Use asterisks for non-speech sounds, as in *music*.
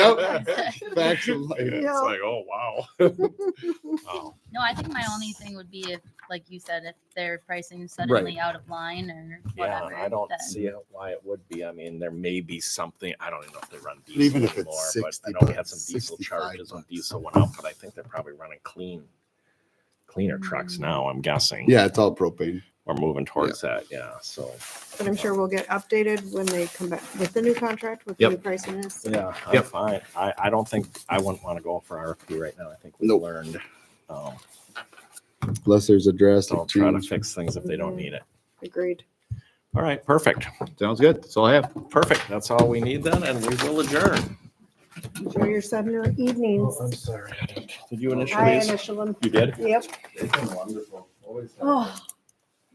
*laughs* Yep. Facts of life. It's Yeah. like, oh wow. Oh, No, I think my only thing would be if, like you said, if their pricing suddenly out of line or yeah, whatever. I don't then- see it why it would be. I mean, there may be something. I don't even know if they run diesel even if it's anymore, but 60 I know we had bucks, some diesel 65 charges when bucks. diesel went up, but I think they're probably running clean, cleaner trucks now. I'm guessing. Yeah, it's all propane. we're moving towards that. Yeah, so But I'm sure we'll get updated when they come back with the new contract, with the Yep. new pricing is. Yeah, I'm Yep. fine. I, I don't think, I wouldn't want to go for RFP right now. I think we Nope. learned. um, Unless there's a drastic Don't try to change. fix things if they don't need it. Agreed. All right, perfect, Sounds good. That's all I have. perfect. That's all we need then, and we will adjourn. Enjoy your summer evenings. Oh, sorry. Did you I initially? initial them. You did? Yep. It's been wonderful. Always Oh,